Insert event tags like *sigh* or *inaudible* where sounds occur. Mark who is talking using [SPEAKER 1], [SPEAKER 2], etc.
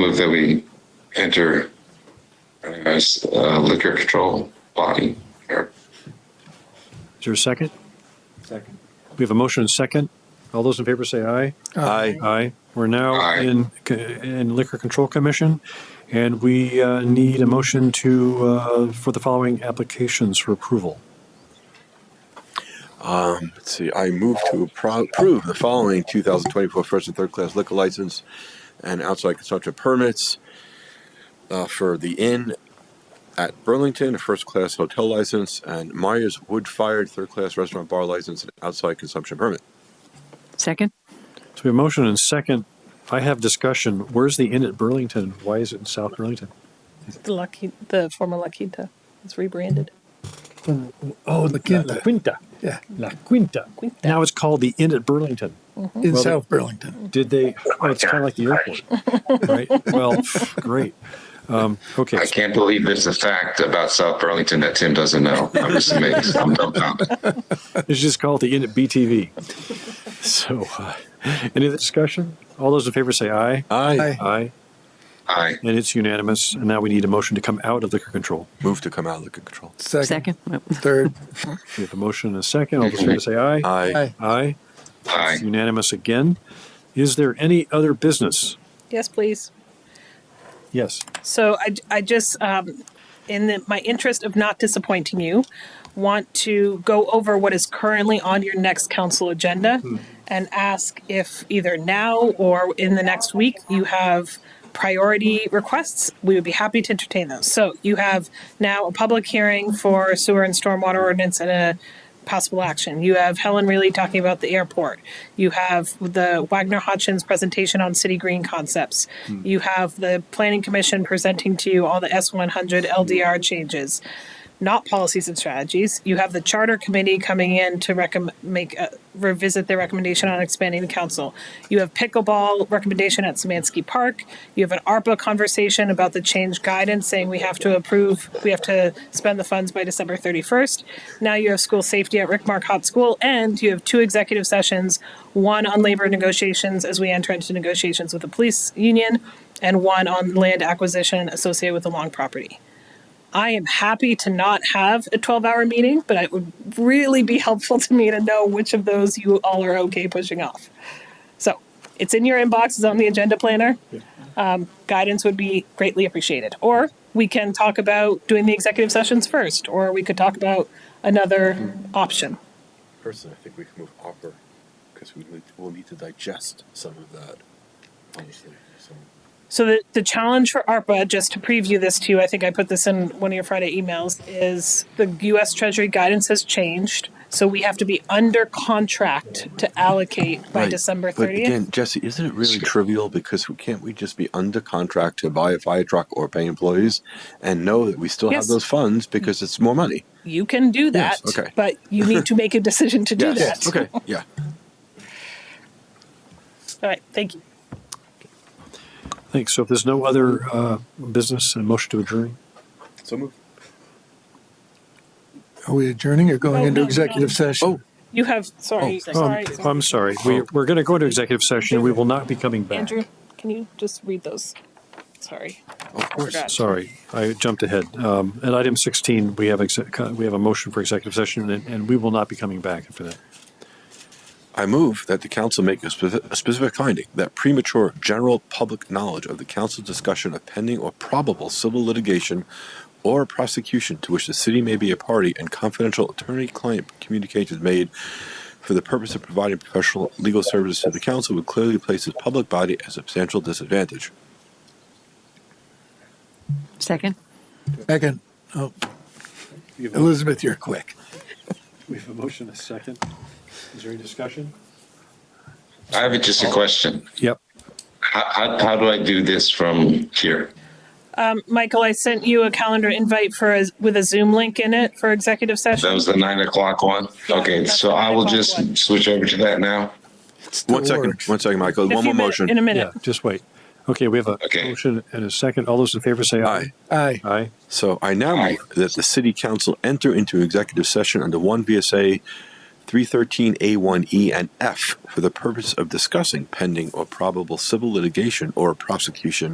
[SPEAKER 1] Move that we enter as uh, liquor control body. or
[SPEAKER 2] Is there a second?
[SPEAKER 3] Second.
[SPEAKER 2] We have a motion and second. All those in favor say aye.
[SPEAKER 3] Aye.
[SPEAKER 2] Aye. We're now
[SPEAKER 1] Aye.
[SPEAKER 2] in, in Liquor Control Commission, and we uh, need a motion to, uh, for the following applications for approval.
[SPEAKER 3] Let's see, I move to appro- approve the following 2024 first and third class liquor license and outside consumption permits uh, for the Inn at Burlington, a first class hotel license, and Myers Wood Fired third class restaurant bar license and outside consumption permit.
[SPEAKER 4] Second?
[SPEAKER 2] So we have motion and second. I have discussion. Where's the inn at Burlington? Why is it in South Burlington?
[SPEAKER 5] The La Quinta, the former La Quinta. It's rebranded.
[SPEAKER 6] Oh, the Quinta.
[SPEAKER 2] La Quinta.
[SPEAKER 6] Yeah,
[SPEAKER 2] La Quinta.
[SPEAKER 5] Quinta.
[SPEAKER 2] Now it's called the Inn at Burlington.
[SPEAKER 6] in
[SPEAKER 2] Well,
[SPEAKER 6] South Burlington.
[SPEAKER 2] Did they, oh, it's kind of like the airport, right? Well, *laughs* great. Um, Okay.
[SPEAKER 1] I can't believe there's a fact about South Burlington that Tim doesn't know. I'm just amazed. I'm dumbfounded.
[SPEAKER 2] It's just called the Unit BTV. So, uh, any other discussion? All those in favor say aye.
[SPEAKER 3] I
[SPEAKER 6] Aye.
[SPEAKER 2] Aye.
[SPEAKER 1] Aye.
[SPEAKER 2] And it's unanimous. And now we need a motion to come out of liquor control.
[SPEAKER 3] move to come out of liquor control.
[SPEAKER 6] Second.
[SPEAKER 4] Second? Nope.
[SPEAKER 6] Third.
[SPEAKER 2] We have a motion and a second. All those in favor say aye.
[SPEAKER 3] Aye.
[SPEAKER 6] Aye.
[SPEAKER 2] Aye. It's
[SPEAKER 1] Aye.
[SPEAKER 2] Unanimous again. Is there any other business?
[SPEAKER 5] Yes, please.
[SPEAKER 2] Yes.
[SPEAKER 5] So I, I just, um, in the, my interest of not disappointing you, want to go over what is currently on your next council agenda and ask if either now or in the next week you have priority requests. We would be happy to entertain those. So you have now a public hearing for sewer and stormwater ordinance and a possible action. You have Helen Reilly talking about the airport. You have the Wagner Hodgins presentation on city green concepts. You have the planning commission presenting to you all the S100 LDR changes, not policies and strategies. You have the charter committee coming in to recommend make a, revisit their recommendation on expanding the council. You have pickleball recommendation at Samansky Park. You have an ARPA conversation about the change guidance saying we have to approve, we have to spend the funds by December 31st. Now you have school safety at Rickmark Hot School, and you have two executive sessions one on labor negotiations as we enter into negotiations with the police union, and one on land acquisition associated with the long property. I am happy to not have a 12 hour meeting, but it would really be helpful to me to know which of those you all are okay pushing off. So it's in your inbox, it's on the agenda planner. Um, guidance would be greatly appreciated. Or we can talk about doing the executive sessions first, or we could talk about another option.
[SPEAKER 3] Personally, I think we can move upper because we will need to digest some of that, honestly.
[SPEAKER 5] So the, the challenge for ARPA, just to preview this to you, I think I put this in one of your Friday emails, is the US Treasury guidance has changed. So we have to be under contract to allocate by
[SPEAKER 3] Right.
[SPEAKER 5] December
[SPEAKER 3] But
[SPEAKER 5] 30th.
[SPEAKER 3] again, Jesse, isn't it really trivial? Because we- can't we just be under contract to buy a fire truck or pay employees and know that we still
[SPEAKER 5] Yes. Mm.
[SPEAKER 3] have those funds because it's more money?
[SPEAKER 5] you can do that,
[SPEAKER 3] Yes, okay.
[SPEAKER 5] but you need to make a decision to do that. *laughs*
[SPEAKER 3] Okay. Yeah.
[SPEAKER 5] All right. Thank you.
[SPEAKER 2] Thanks. So if there's no other uh, business, a motion to adjourn.
[SPEAKER 3] So move.
[SPEAKER 6] Are we adjourning or going
[SPEAKER 5] No,
[SPEAKER 6] into
[SPEAKER 5] no,
[SPEAKER 6] executive
[SPEAKER 5] no.
[SPEAKER 6] session?
[SPEAKER 3] Oh.
[SPEAKER 5] You have, sorry,
[SPEAKER 2] Oh,
[SPEAKER 5] sorry.
[SPEAKER 2] I'm- I'm sorry. We, we're going to go into executive session. We will not be coming back.
[SPEAKER 5] Andrew, can you just read those? Sorry.
[SPEAKER 3] Of course.
[SPEAKER 5] Forgot.
[SPEAKER 2] Sorry, I jumped ahead. Um, At item 16, we have, exec- we have a motion for executive session, and- and we will not be coming back after that.
[SPEAKER 3] I move that the council make a, speci- a specific finding that premature general public knowledge of the council's discussion of pending or probable civil litigation or prosecution to which the city may be a party and confidential attorney client communications made for the purpose of providing professional legal services to the council would clearly place this public body at substantial disadvantage.
[SPEAKER 4] Second?
[SPEAKER 6] Second. Oh. Elizabeth, you're quick.
[SPEAKER 2] We have a motion, a second. Is there any discussion?
[SPEAKER 1] I have just a question.
[SPEAKER 2] Yep.
[SPEAKER 1] How, how, how do I do this from here?
[SPEAKER 5] Michael, I sent you a calendar invite for a, with a Zoom link in it for executive session.
[SPEAKER 1] That was the nine o'clock one? Okay,
[SPEAKER 5] that's
[SPEAKER 1] so
[SPEAKER 5] the
[SPEAKER 1] I will
[SPEAKER 5] nine o'clock one.
[SPEAKER 1] just switch over to that now.
[SPEAKER 3] One second,
[SPEAKER 6] works.
[SPEAKER 3] one second, Michael.
[SPEAKER 5] In a
[SPEAKER 3] One more
[SPEAKER 5] few minute-
[SPEAKER 3] motion.
[SPEAKER 5] In a minute.
[SPEAKER 2] Yeah, just wait. Okay, we have a
[SPEAKER 1] Okay.
[SPEAKER 2] motion and a second. All those in favor say aye.
[SPEAKER 3] Aye.
[SPEAKER 6] Aye.
[SPEAKER 2] Aye.
[SPEAKER 3] So I now
[SPEAKER 1] Aye.
[SPEAKER 3] move that the city council enter into executive session under one VSA three thirteen A one E and F for the purpose of discussing pending or probable civil litigation or prosecution